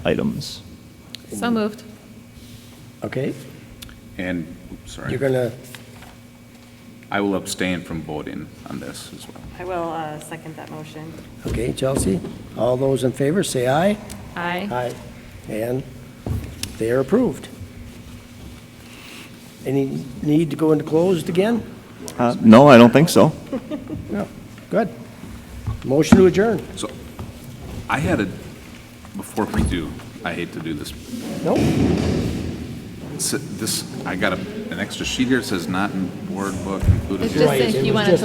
items. So moved. Okay, And, sorry, you're gonna, I will abstain from voting on this as well. I will uh, second that motion. okay, Chelsea, all those in favor, say aye. Aye. Aye. And they are approved. Any need to go into closed again? Uh, No, I don't think so. No. Good. Motion to adjourn? So I had a, before we do, I hate to do this. No? S- This, I got a- an extra sheet here that says not in board book included. It's just Right, if it you was wanted just- to